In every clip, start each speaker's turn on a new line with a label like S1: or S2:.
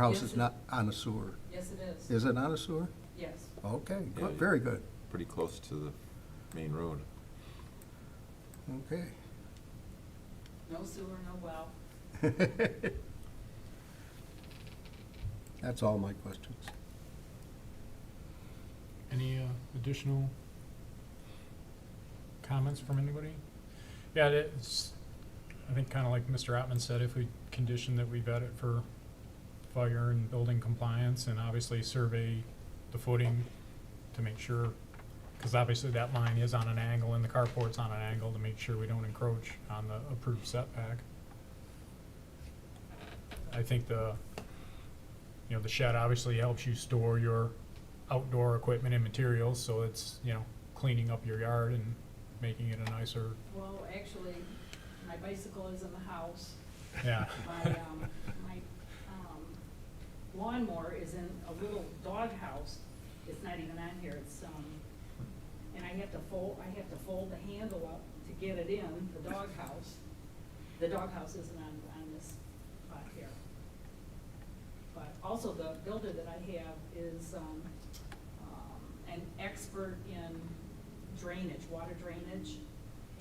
S1: House is not on a sewer.
S2: Yes, it is.
S1: Is it on a sewer?
S2: Yes.
S1: Okay,
S3: Yeah,
S1: good,
S3: yeah.
S1: very good.
S3: pretty close to the main road.
S1: Okay.
S2: No sewer, no well.
S1: That's all my questions.
S4: Any uh, additional comments from anybody? Yeah, it's, I think kind of like Mr. Ottman said, if we condition that we vet it for fire and building compliance and obviously survey the footing to make sure, because obviously that line is on an angle and the carport's on an angle to make sure we don't encroach on the approved setback. I think the, you know, the shed obviously helps you store your outdoor equipment and materials, so it's, you know, cleaning up your yard and making it a nicer,
S2: Well, actually, my bicycle is in the house.
S4: yeah.
S2: My, um, my, um, lawnmower is in a little doghouse. It's not even on here. It's, um, and I have to fold, I have to fold the handle up to get it in, the doghouse. The doghouse isn't on, on this spot here. But also the builder that I have is, um, um, an expert in drainage, water drainage.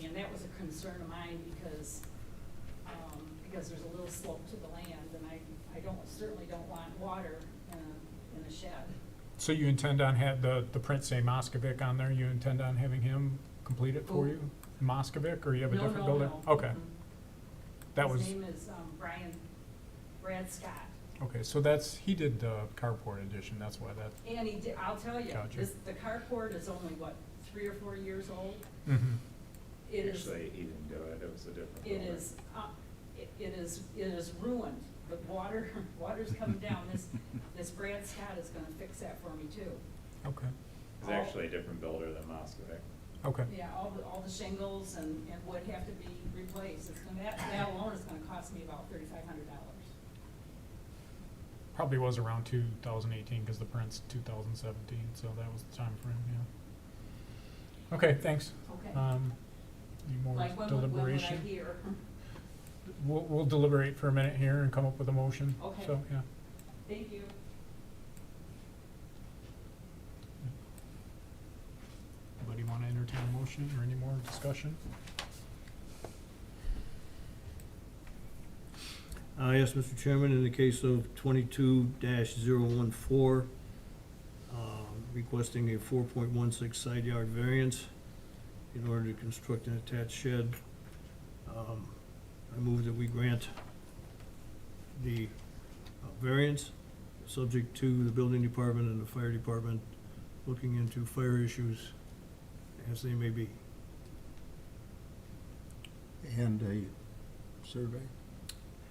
S2: And that was a concern of mine because, um, because there's a little slope to the land and I, I don't, certainly don't want water in a, in a shed.
S4: So you intend on had the, the print say Moskovic on there, you intend on having him complete it for
S2: Who?
S4: you? Moskovic, or you have a
S2: No,
S4: different
S2: no,
S4: builder?
S2: no.
S4: Okay,
S2: Mm-mm.
S4: that was,
S2: His name is, um, Brian, Brad Scott.
S4: okay, so that's, he did the carport edition, that's why that,
S2: And he did, I'll tell you,
S4: Gotcha.
S2: this, the carport is only what, three or four years old?
S4: mhm,
S2: It is,
S5: Actually, he didn't do it, it was a different.
S2: it
S5: owner.
S2: is, uh, it it is, it is ruined, the water, water's coming down, this, this Brad Scott is gonna fix that for me too.
S4: okay,
S5: It was actually a different builder than Moskovic.
S4: okay.
S2: Yeah, all the, all the shingles and, and would have to be replaced, it's gonna, that, that alone is gonna cost me about thirty-five hundred dollars.
S4: Probably was around two thousand eighteen, cause the print's two thousand seventeen, so that was the time frame. yeah. Okay, thanks.
S2: Okay,
S4: Um, any more
S2: like when, would- when would I
S4: deliberation?
S2: hear?
S4: We'll, we'll deliberate for a minute here and come up with a motion.
S2: Okay.
S4: So, yeah.
S2: Thank you.
S4: Anybody want to entertain a motion or any more discussion?
S6: Uh, yes, Mr. Chairman, in the case of twenty-two 14 um, requesting a four point one six side yard variance in order to construct an attached shed, um, I move that we grant the uh, variance, subject to the building department and the fire department looking into fire issues as they may be.
S1: And a survey?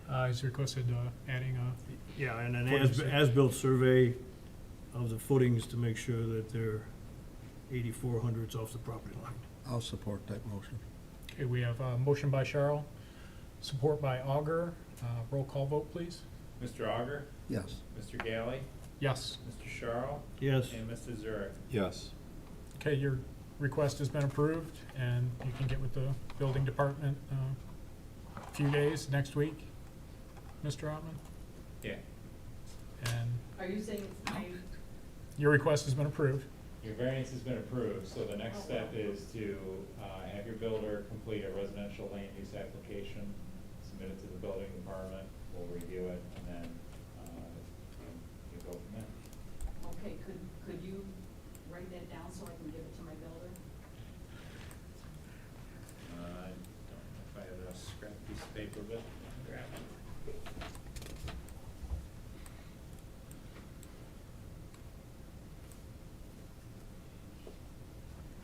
S4: Uh, he's requested, uh, adding a,
S6: Yeah, and an
S4: Footings.
S6: as, as-built survey of the footings to make sure that they're eighty-four hundredths off the property line.
S1: I'll support that motion.
S4: okay, we have a motion by Charles, support by Augur. Uh, roll call vote, please.
S5: Mr. Auger,
S1: Yes.
S5: Mr. Galley,
S4: Yes.
S5: Mr. Charles,
S6: Yes,
S5: and Mrs. Zurich.
S3: Yes.
S4: Okay, your request has been approved and you can get with the building department, uh, a few days, next week, Mr. Ottman?
S5: Yeah,
S4: And
S2: Are you saying it's my,
S4: your request has been approved.
S5: your variance has been approved, so the
S2: Oh,
S5: next step is to uh, have your builder complete a residential land use application, submit it to the building department, we'll review it, and then uh, you go from there.
S2: okay, could, could you write that down so I can give it to my builder?
S5: Uh, I don't know if I have a scrap piece of paper, but I'll grab it.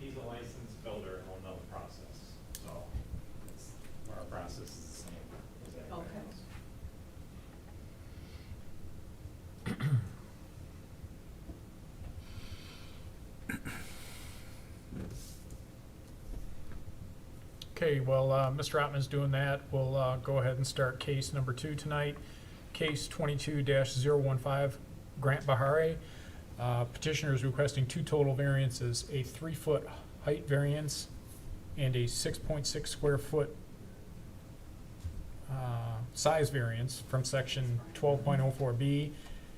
S5: He's a licensed builder and will know the process, so it's, our process is the same as everybody
S2: Okay.
S5: else.
S4: Okay, well, uh, Mr. Ottman's doing that. We'll uh, go ahead and start case number two tonight. Case twenty-two 15 Grant Bahari. Uh, Petitioner is requesting two total variances, a three-foot height variance and a six-point-six square foot uh, size variance from section twelve point oh four B